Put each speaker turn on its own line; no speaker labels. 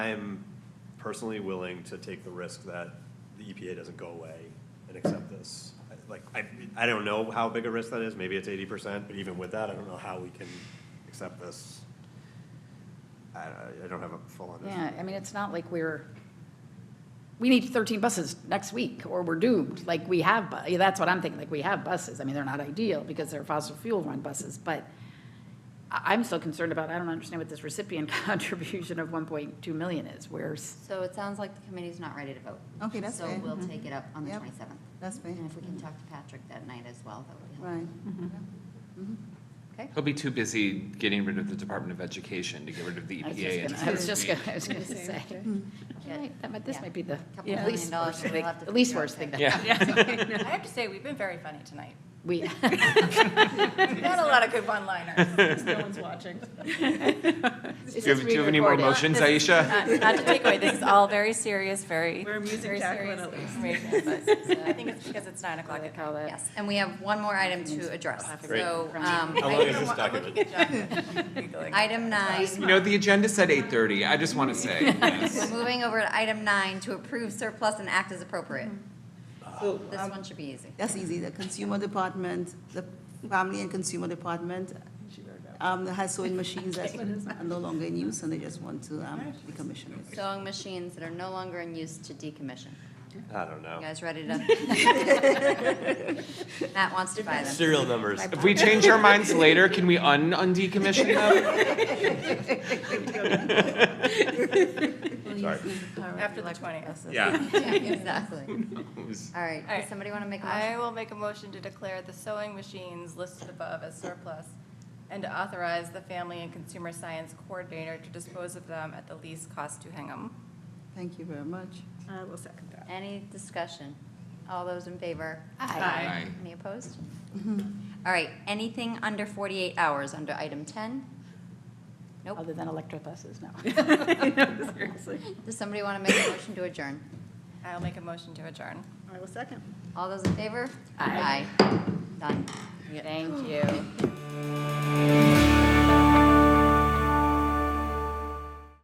I am personally willing to take the risk that the EPA doesn't go away and accept this. I- Like, I, I don't know how big a risk that is, maybe it's eighty percent, but even with that, I don't know how we can accept this. I, I- I don't have a full understanding.
Yeah, I mean, it's not like we're, we need 13 buses next week, or we're doomed. Like, we have, bu- yeah, that's what I'm thinking, like, we have buses. I mean, they're not ideal because they're fossil fuel-run buses, but I- I'm still concerned about, I don't understand what this recipient contribution of 1.2 million is. Where's,
So it sounds like the committee's not ready to vote.
Okay, that's fair.
So we'll
Mhm.
take it up on the
Yep.
27th.
That's fair. Mm-hmm.
And if we can talk to Patrick that night as well, that would be helpful.
Right.
Okay?
He'll be too busy getting rid of the Department of Education to get rid of the E
I was
EPA.
just
and
gonna- I was just
be-
gonna, I was gonna say. Yeah, that might- This
Mm. Yeah.
might be the
Couple million
least
dollars,
worst
we'll
thing,
have to
the least
figure out
worst thing
that.
that
Yeah,
I have to say, we've been very funny tonight.
we,
We've had a lot of good one-liners.
do you have, do you have any more motions, Aisha?
Not not to take away, this is all very serious, very. We're amusing Jacqueline at least. I think it's because it's nine o'clock at night.
Yes, and we have one more item to address.
Great.
So, um,
How long is this document?
item nine,
You know, the agenda said eight thirty, I just wanna say, yes.
moving over to item nine, to approve surplus and act as appropriate.
So
This
um,
one should be easy.
that's easy. The Consumer Department, the Family and Consumer Department um, has sewing machines that are no longer in use, and they just want to um, decommission it.
Sewing machines that are no longer in use to decommission.
I don't
You
know.
guys ready to? Matt wants to buy them.
Serial numbers.
If we change our minds later, can we un, undecommission them?
Sorry.
After the 20th.
Yeah.
Yeah, Exactly.
Who's-
All right,
All
does
right.
somebody want to make a motion?
I will make a motion to declare the sewing machines listed above as surplus and to authorize the Family and Consumer Science Coordinator to dispose of them at the least cost to Hingham.
Thank you very much.
I will second that.
Any discussion? All those in favor?
Aye.
Any opposed? All right, anything under 48 hours under item 10? Nope.
other than electric buses, no.
Seriously.
Does somebody want to make a motion to adjourn?
I'll make a motion to adjourn.
I will second.
All those in favor?
Aye.
Aye. Done.
Thank you.